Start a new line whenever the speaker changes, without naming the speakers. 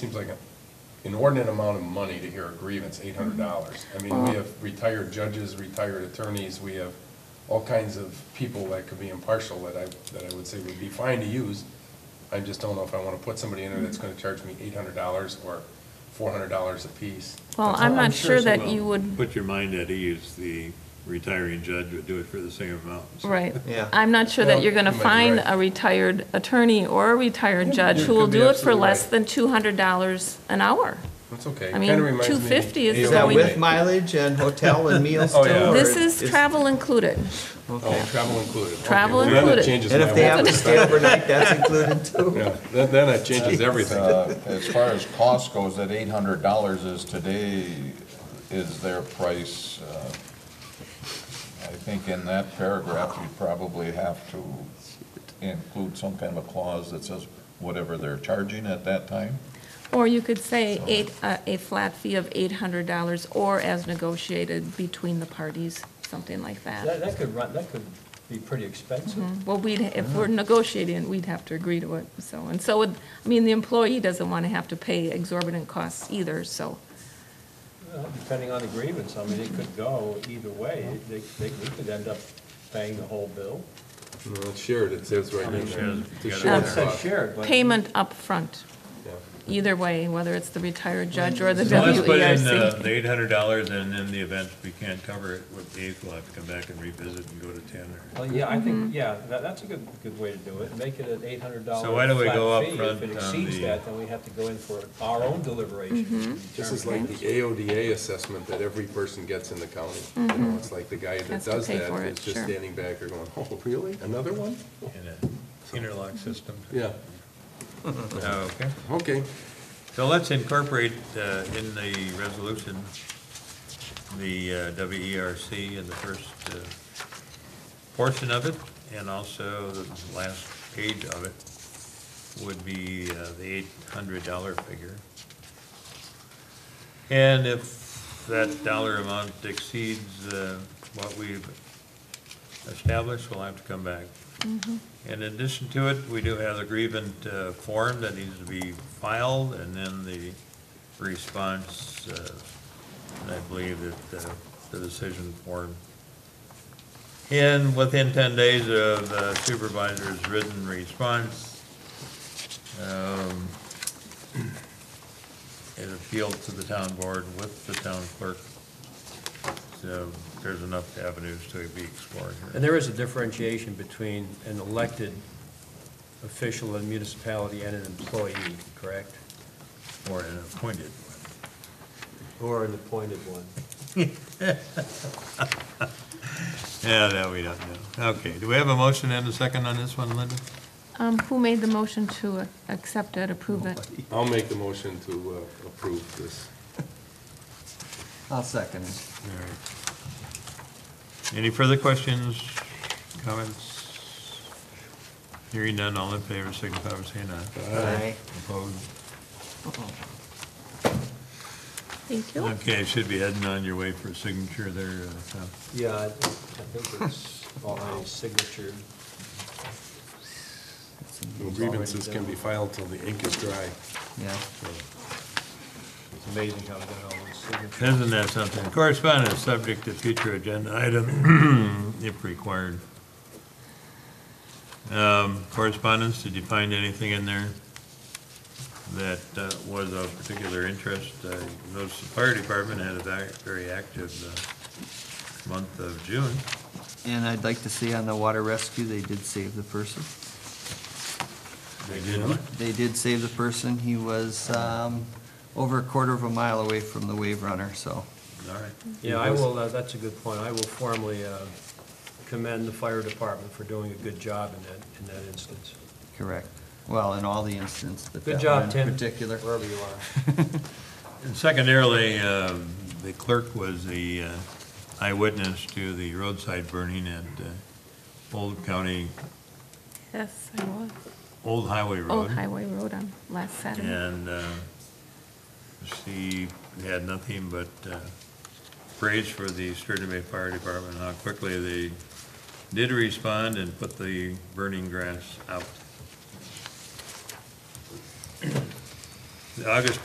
Seems like an inordinate amount of money to hear a grievance, eight hundred
Mm-hmm.
dollars. I mean, we have retired judges, retired attorneys, we have all kinds of people that could be impartial that I, that I would say would be fine to use. I just don't know if I want to put somebody in there
Mm-hmm.
that's going to charge me eight hundred dollars or four hundred dollars apiece.
Well,
That's all.
I'm not sure
she
that
will.
you would,
um, Put your mind at ease, the retiring judge would do it for the same amount. so-
right.
Yeah.
I'm not sure that you're going to
Well, you might be
find
right.
a retired attorney or a retired judge
you
who will
could be
do it for
absolutely
less
right.
than $200 an hour.
That's okay.
I mean,
Kinda reminds me-
250 is
Is that
we-
with mileage and hotel and meals
Oh,
too?
yeah.
or
This is travel included.
Oh, travel included. Okay,
Travel
well, then it
included.
changes
And
my
if they
whole
have to stay
perspective.
overnight, that's included too.
Yeah, then, then it changes everything.
Uh, As far as cost goes, that eight hundred dollars is today, is their price. uh, I think in that paragraph, you probably have to include some kind of a clause that says whatever they're charging at that time.
Or you could say eight, uh, a flat fee of $800 or as negotiated between the parties, something like
That,
that.
that could run, that could be pretty expensive.
Well, we'd,
Uh-huh.
if we're negotiating, we'd have to agree to it, so, and so, would- I mean, the employee doesn't want to have to pay exorbitant costs either, so.
Uh, Depending on the grievance, I mean, it could go either way. They, they, we could end up paying the whole bill.
No, it's shared, it says right in there. It's a
Yeah.
shared
It says
cost.
shared, but.
payment upfront,
Yeah.
either way, whether it's the retired judge or the E
So let's put in uh,
WERC.
the eight hundred dollars, and in the event we can't cover it with eight, we'll have to come back and revisit and go to ten or.
Well, yeah, I think, yeah, that, that's a good, good way to do it. Make it an eight hundred dollar
So why don't we go up
flat fee. If
front
it
on
exceeds
the-
that, then we have to go in for our own deliberation. to
This is like
determine.
the AODA assessment that every person gets in the county. You know, it's like the guy that
Has to
does
pay
that
Mm-hmm. for
is
it,
just
sure.
standing back there going, oh, really? Another one?
in an Interlock system. Uh,
Yeah,
Okay,
okay.
so let's incorporate uh, in the resolution, the uh, WERC in the first uh, portion of it, and also the last page of it would be uh, the eight hundred dollar figure. And if that dollar amount exceeds uh, what we've established, we'll have to come back. In addition to it, we do have the grievance uh, form that needs to be filed, and then the response, uh, and I believe that uh, the decision form. And within 10 days of the supervisor's written response, um, it appealed to the town board with the town clerk. So there's enough avenues to be explored here.
And there is a differentiation between an elected official in a municipality and an employee, correct?
Or an appointed one.
Or an appointed one.
Yeah, that we don't know. Okay, do we have a motion and a second on this one, Linda?
Um, who made the motion to accept it, approve it?
I'll make the motion to uh, approve this.
I'll second it.
Any further questions, comments? Hearing none, all in favor, signify by saying aye.
Aye.
Opposed?
Thank you.
Okay, I should be heading on your way for a signature there, uh, Tom.
Yeah, I I think it's already signatured.
No grievances can be filed till the ink is dry.
Yeah.
It's amazing how we got all those signatures.
Isn't that something? Correspondence, subject to future agenda item, if required. Um, Correspondence, did you find anything in there that uh, was of particular interest? Uh, Notice the fire department had a very very active uh, month of June.
And I'd like to see on the water rescue, they did save the person.
They did what?
They did save the person. He was um, over a quarter of a mile away from the wave runner, so.
All right.
Yeah, I will, uh, that's a good point. I will formally uh, commend the fire department for doing a good job in that, in that instance.
Correct. Well, in all the instances, but
Good
that
job,
one
Tim.
in particular.
Wherever you are.
And secondarily, um, the clerk was the uh, eyewitness to the roadside burning at uh, Old County,
Yes, I was.
Old Highway Road.
Old Highway Road on last Saturday.
And uh, she had nothing but uh, praise for the Sturgeon Bay Fire Department, how quickly they did respond and put the burning grass out. August